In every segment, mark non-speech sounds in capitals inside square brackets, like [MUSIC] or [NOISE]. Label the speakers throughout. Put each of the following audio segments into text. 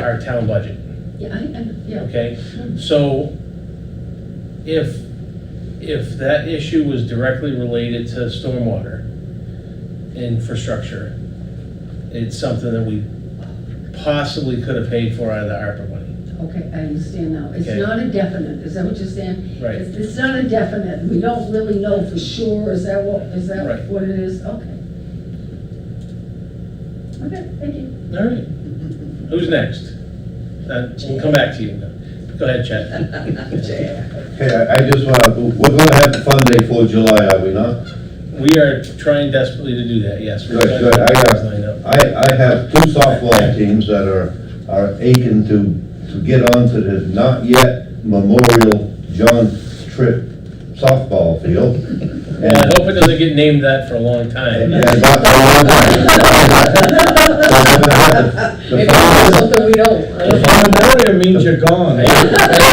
Speaker 1: our town budget,
Speaker 2: Yeah, I, I, yeah.
Speaker 1: okay? So if, if that issue was directly related to stormwater infrastructure, it's something that we possibly could have paid for out of the ARPA money.
Speaker 2: Okay, I understand now. It's
Speaker 1: Okay.
Speaker 2: not a definite, is that what you're saying?
Speaker 1: Right.
Speaker 2: It's, it's not a definite, we don't really know for sure, is that what, is that
Speaker 1: Right.
Speaker 2: what it is? Okay. Okay, thank you.
Speaker 1: All right. Who's next? Uh, We'll come back to you. Go ahead, Chad.
Speaker 3: Hey, I I just want to, we're going to have the fun day for July, are we not?
Speaker 1: We are trying desperately to do that, yes. We're
Speaker 3: Good,
Speaker 1: trying
Speaker 3: good.
Speaker 1: to
Speaker 3: I, uh,
Speaker 1: line up.
Speaker 3: I, I have two softball teams that are, are aching to, to get onto the not yet Memorial John Tripp softball field.
Speaker 1: And I
Speaker 3: And
Speaker 1: hope it doesn't get named that for a long time.
Speaker 3: Yeah, not for a long time. So we're gonna
Speaker 2: Maybe
Speaker 3: have the- the fun-
Speaker 2: it's something we don't. I don't know.
Speaker 4: Memorial means you're gone.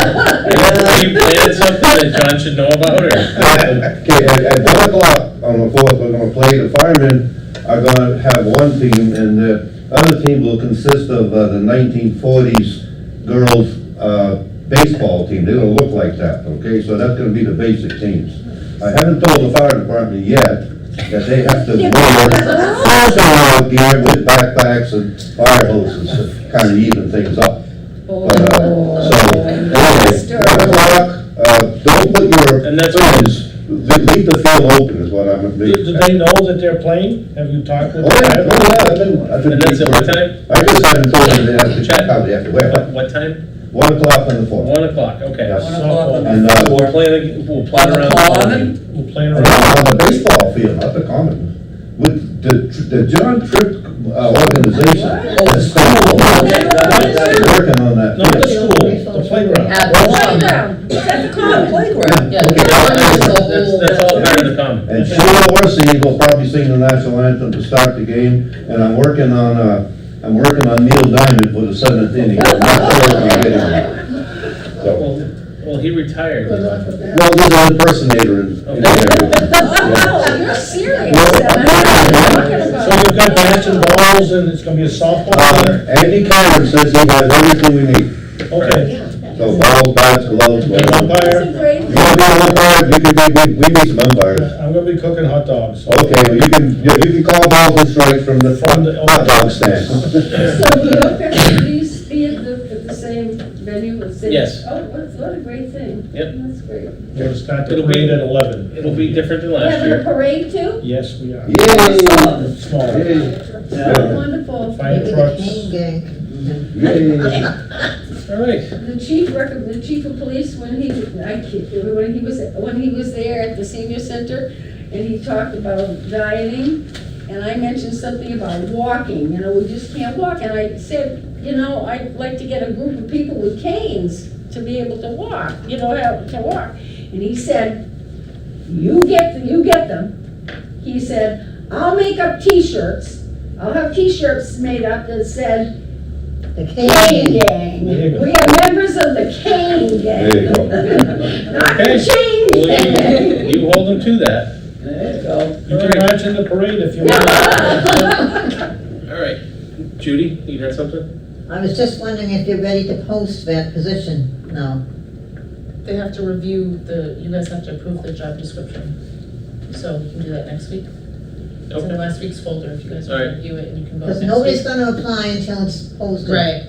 Speaker 1: Have you planned something that John should know about, or?
Speaker 3: Okay, at, at one o'clock on the fourth, we're gonna play, the firemen are gonna have one team, and the other team will consist of, uh, the nineteen forties girls, uh, baseball team, they're gonna look like that, okay, so that's gonna be the basic teams. I haven't told the fire department yet that they have to wear fire out gear with backpacks and fire hoses to kinda even things up.
Speaker 2: Oh,
Speaker 3: But, uh, So, anyway,
Speaker 2: Mr.
Speaker 3: one o'clock, uh, don't put your.
Speaker 1: And that's-
Speaker 3: fingers- le- Leave the field open is what I'm.
Speaker 4: Do do they know that they're playing? Have you talked with
Speaker 3: Oh, yeah,
Speaker 4: them?
Speaker 3: no, yeah, I've been, I've been.
Speaker 1: And that's at what time?
Speaker 3: I just haven't told them they have to
Speaker 1: Chad?
Speaker 3: check out, they have to
Speaker 1: What,
Speaker 3: wait,
Speaker 1: what time?
Speaker 3: one o'clock on the fourth.
Speaker 1: One o'clock, okay.
Speaker 3: Yes.
Speaker 4: Softball,
Speaker 3: And, uh,
Speaker 1: We'll play, the- we'll plot around. the clock.
Speaker 4: we're playing
Speaker 3: and
Speaker 4: around.
Speaker 3: on the baseball field, not the common, with the, the John Tripp uh, organization. the school,
Speaker 1: Okay, not- not-
Speaker 3: they're
Speaker 1: not-
Speaker 3: Working on that.
Speaker 4: Not the
Speaker 3: field. [LAUGHS]
Speaker 4: school, the playground.
Speaker 5: Playground, that's a common playground.
Speaker 2: Yeah,
Speaker 3: Okay,
Speaker 2: that's
Speaker 3: that's-
Speaker 2: the
Speaker 1: That's,
Speaker 2: whole-
Speaker 1: that's all part of the comment.
Speaker 3: And Sheila Orsi will probably sing the national anthem to start the game, and I'm working on, uh, I'm working on Neil Diamond for the seventh inning. I'm not sure when I get him. So,
Speaker 1: Well, well, he retired.
Speaker 2: Good luck with that.
Speaker 3: Well, there's an impersonator in in there.
Speaker 5: Oh, you're serious.
Speaker 3: Well,
Speaker 4: So we've got bats and balls and it's gonna be a softball
Speaker 3: Uh,
Speaker 4: center?
Speaker 3: Andy Carter says he has everything we need,
Speaker 4: Okay.
Speaker 3: so balls, bats, gloves,
Speaker 4: An
Speaker 3: whatever.
Speaker 4: Umpire,
Speaker 3: You wanna be an umpire, you can be, we, we need some umpires.
Speaker 4: I'm gonna be cooking hot dogs.
Speaker 3: Okay, well, you can, you you can call balls and strikes from the
Speaker 4: From the-
Speaker 3: hot dog
Speaker 4: [LAUGHS]
Speaker 3: stand.
Speaker 2: So will your festivities be at the, at the same venue, the same?
Speaker 1: Yes.
Speaker 2: Oh, what, what a great thing.
Speaker 1: Yep.
Speaker 2: That's great.
Speaker 4: We're gonna start the
Speaker 1: It'll be-
Speaker 4: parade at eleven.
Speaker 1: It'll be different than
Speaker 5: We're
Speaker 1: last
Speaker 5: having a
Speaker 1: year.
Speaker 5: parade too?
Speaker 4: Yes, we are.
Speaker 3: Yay!
Speaker 4: Small.
Speaker 3: Yay!
Speaker 2: So Wonderful.
Speaker 4: Fire trucks.
Speaker 3: Yay!
Speaker 1: All right,
Speaker 2: The chief, rec- the chief of police, when he, I kid you, when he was, when he was there at the senior center, and he talked about dieting, and I mentioned something about walking, you know, we just can't walk, and I said, you know, I'd like to get a group of people with canes to be able to walk, you know, have, to walk. And he said, you get, you get them. He said, I'll make up t-shirts, I'll have t-shirts made up that said, Cane Gang.
Speaker 4: There you go.
Speaker 2: We are members of the Cane Gang.
Speaker 3: There you go.
Speaker 2: [LAUGHS] Not
Speaker 1: Okay.
Speaker 2: the Chain Gang.
Speaker 1: Well, you you hold them to that.
Speaker 4: You can march in the parade if you want.
Speaker 1: All right, Judy, you got something?
Speaker 6: I was just wondering if you're ready to post that position now.
Speaker 7: They have to review the, you guys have to approve the job description. So you can do that next week. It's in the last week's folder, if you guys want
Speaker 1: Alright.
Speaker 7: to review it and you can vote
Speaker 6: Because
Speaker 7: next
Speaker 6: nobody's
Speaker 7: week.
Speaker 6: gonna apply until it's posted.
Speaker 7: Right,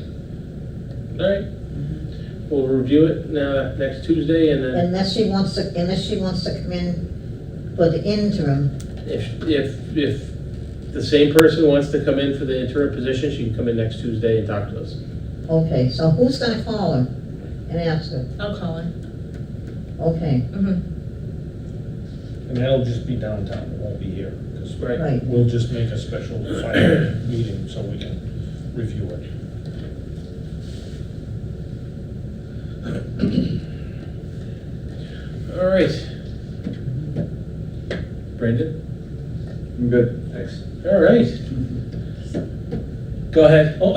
Speaker 1: All right. We'll review it now, next Tuesday, and then
Speaker 6: Unless she wants to, unless she wants to come in for the interim.
Speaker 1: If, if, if the same person wants to come in for the interim position, she can come in next Tuesday and talk to us.
Speaker 6: Okay, so who's gonna call her and ask her?
Speaker 7: I'll call him.
Speaker 6: Okay,
Speaker 7: Mm-hmm.
Speaker 4: And that'll just be downtown, it won't be here. 'cause
Speaker 1: Right.
Speaker 6: right.
Speaker 4: We'll just make a special fire meeting so we can review it.
Speaker 1: All right. Brandon?
Speaker 3: I'm good, thanks.
Speaker 1: All right. Go ahead. Oh,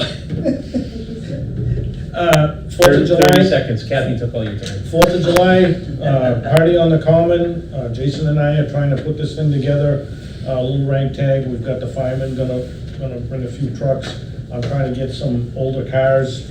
Speaker 4: Uh, Fourth
Speaker 1: Thirty
Speaker 4: of
Speaker 1: thirty
Speaker 4: July,
Speaker 1: seconds. Kathy took all your time.
Speaker 4: Fourth of July, uh, party on the common, Uh, Jason and I are trying to put this thing together, a little rank tag, we've got the firemen gonna, gonna bring a few trucks. I'm trying to get some older cars